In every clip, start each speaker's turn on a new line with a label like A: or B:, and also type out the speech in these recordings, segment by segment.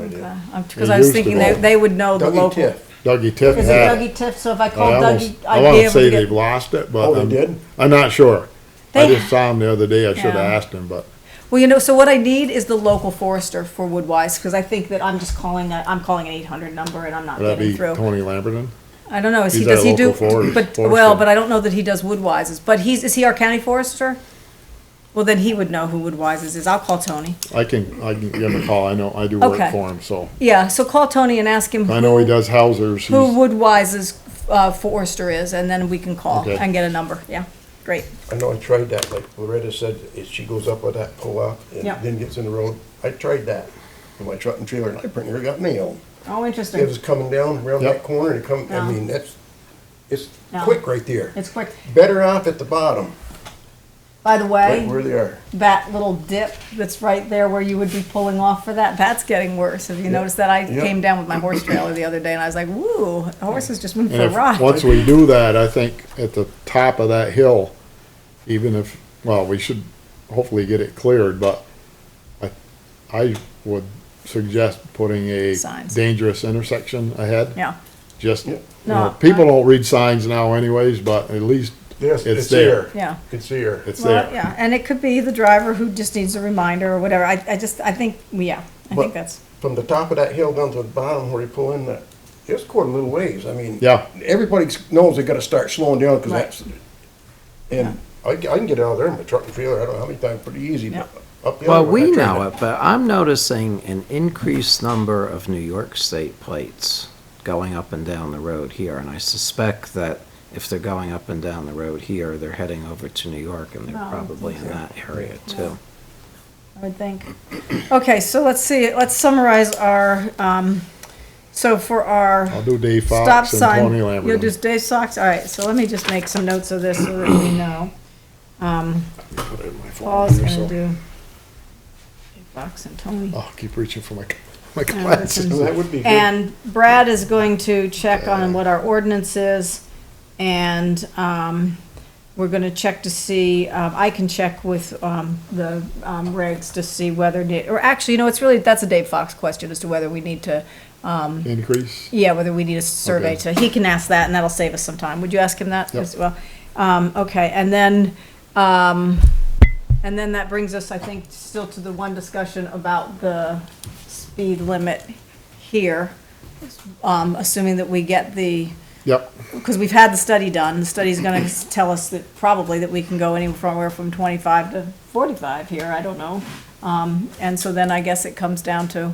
A: I, I'm, because I was
B: used to
A: thinking they,
B: be.
A: they would know the
C: Dougie
A: local.
C: Tiff.
B: Dougie Tiff
A: Is it
B: had
A: Dougie
B: it.
A: Tiff? So if I
B: I
A: called
B: almost-
A: Dougie,
B: I
A: I'd be
B: wanna
A: able to
B: say
A: get.
B: they've lost it, but.
C: Oh, they
B: I'm-
C: did?
B: I'm not sure. I
A: They-
B: just saw him the other day. I should've
A: Yeah.
B: asked him, but
A: Well, you know, so what I need is the local forester for Woodwise, because I think that I'm just calling a, I'm calling an eight hundred number and I'm not
B: that'd
A: getting
B: be
A: through.
B: Tony Lamberton.
A: I don't know, is he,
B: He's our
A: does he do,
B: local forest-
A: but,
B: forester.
A: well, but I don't know that he does Woodwises, but he's, is he our county forester? Well, then he would know who Woodwises is, I'll call Tony.
B: I can, I can give him a call. I know, I do work
A: Okay.
B: for him, so.
A: Yeah, so call Tony and ask him
B: I know he
A: who,
B: does Housers.
A: who
B: He's,
A: Woodwise's, uh, forester is, and then we can call
B: Okay.
A: and get a number, yeah, great.
C: I know I tried that, like Loretta said, if she goes up with that pull up and
A: Yeah.
C: then gets in the road. I tried that with my truck and trailer and I pretty near got nailed.
A: Oh,
C: It
A: interesting,
C: was coming down around that
B: Yep.
C: corner and it come, I
A: No.
C: mean, that's, it's
A: No.
C: quick right there.
A: it's quick.
C: Better off at the bottom,
A: By the way.
C: right where they are.
A: that little dip that's right there where you would be pulling off for that, that's getting worse. Have you noticed that? I
C: Yep.
A: came down with my horse trailer the other day and I was like, woo, the horse has just moved
B: and
A: for a
B: if,
A: ride.
B: once we do that, I think at the top of that hill, even if, well, we should hopefully get it cleared, but I, I would suggest putting a
A: Signs.
B: dangerous intersection ahead.
A: Yeah.
B: Just,
C: Yeah.
B: you know,
A: No,
B: people don't read signs now anyways, but at least
C: Yes,
B: it's there.
A: Yeah.
C: It's there.
B: It's
A: Well,
B: there.
A: yeah, and it could be the driver who just needs a reminder or whatever. I, I just, I think, yeah, I
C: But-
A: think that's,
C: From the top of that hill down to the bottom where you pull in that, it's quite a little ways. I mean.
B: Yeah.
C: Everybody knows they gotta start slowing down because
A: Right.
C: that's, and I, I can get out of there in my truck and trailer, I don't know how many times, pretty easy. but up the
D: Well,
C: other way, I
D: we
C: tried
D: know
C: to-
D: it, but I'm noticing an increased number of New York State plates going up and down the road here, and I suspect that if they're going up and down the road here, they're heading over to New York, and
A: No, I
D: they're
A: don't
D: probably in that area too.
A: I would think. Okay, so let's see, let's summarize our, um, so for our.
B: I'll do Dave
A: Stop
B: Fox and
A: sign.
B: Tony
A: You'll
B: Lamberton.
A: just Dave Fox, all right, so let me just make some notes of this so that we know. Um, Paul's gonna do Dave Fox and Tony.
B: Oh, keep reaching for my, my
A: Lamberton.
B: glasses.
C: That would be good.
A: And Brad is going to check
B: Uh,
A: on what our ordinance is, and, um, we're gonna check to see, um, I can check with, um, the, um, regs to see whether, da- or actually, you know, it's really, that's a Dave Fox question as to whether we need to,
B: Increase.
A: Yeah, whether we need a survey to, he can ask that and that'll save us some time. Would you ask him that
B: Yep.
A: as well? Um, okay, and then, um, and then that brings us, I think, still to the one discussion about the speed limit here. Um, assuming that we get the,
B: Yep.
A: because we've had the study done, the study's gonna s- tell us that probably that we can go anywhere from twenty-five to forty-five here, I don't know. Um, and so then I guess it comes down to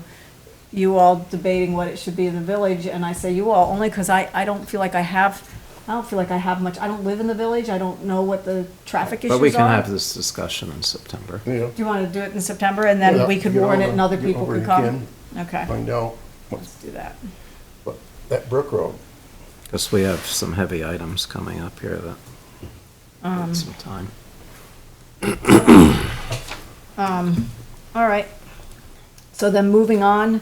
A: you all debating what it should be in the village, and I say you all, only because I, I don't feel like I have, I don't feel like I have much, I don't live in the village, I don't know what the traffic issues are.
D: But we can have this discussion in September.
C: Yeah.
A: Do you wanna do it in September, and then
C: Yeah,
A: we could
C: get
A: warn it
C: over-
A: and other
C: get
A: people
C: over
A: could
C: it
A: come?
C: again.
A: Okay,
C: Find out, what-
A: let's do that.
C: what- that Brook Road,
D: Because we have some heavy items coming up here that
A: Um,
D: need some time.
A: All right. So then moving on,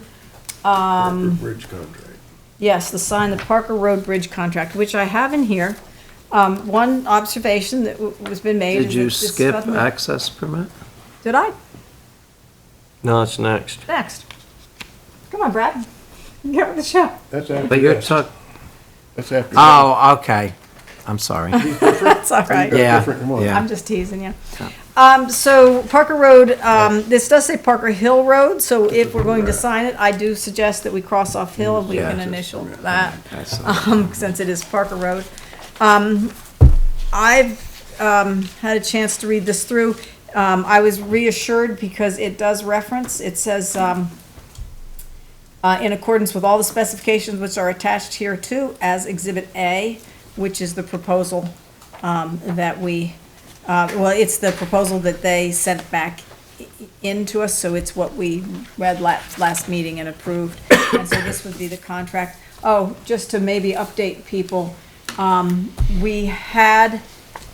C: Brook Bridge contract.
A: Yes, the sign, the Parker Road Bridge contract, which I have in here. Um, one observation that w- was been made.
D: Did
A: is
D: you
A: that this
D: skip
A: doesn't-
D: access permit?
A: Did I?
E: No, it's next.
A: Next. Come on, Brad. Get with the show.
C: That's after.
D: But you're
C: this.
D: talking,
C: That's after.
D: oh, okay, I'm sorry.
A: That's all right.
D: Yeah,
C: different one.
D: yeah.
A: I'm just teasing you. Um, so Parker Road, um, this does say Parker Hill Road, so if we're going to sign it, I do suggest that we cross off Hill and we
D: Yeah.
A: can initial that.
D: I saw.
A: um, since it is Parker Road. Um, I've, um, had a chance to read this through. Um, I was reassured because it does reference, it says, um, uh, in accordance with all the specifications which are attached here too as Exhibit A, which is the proposal, um, that we, uh, well, it's the proposal that they sent back i- in to us, so it's what we read last, last meeting and approved. And so this would be the contract. Oh, just to maybe update people, um, we had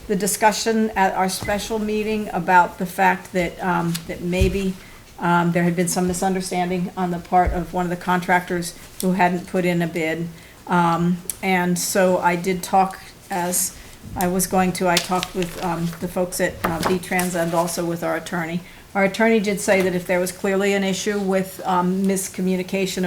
A: the discussion at our special meeting about the fact that, um, that maybe, um, there had been some misunderstanding on the part of one of the contractors who hadn't put in a bid. Um, and so I did talk as I was going to, I talked with, um, the folks at, uh, V-Trans and also with our attorney. Our attorney did say that if there was clearly an issue with, um, miscommunication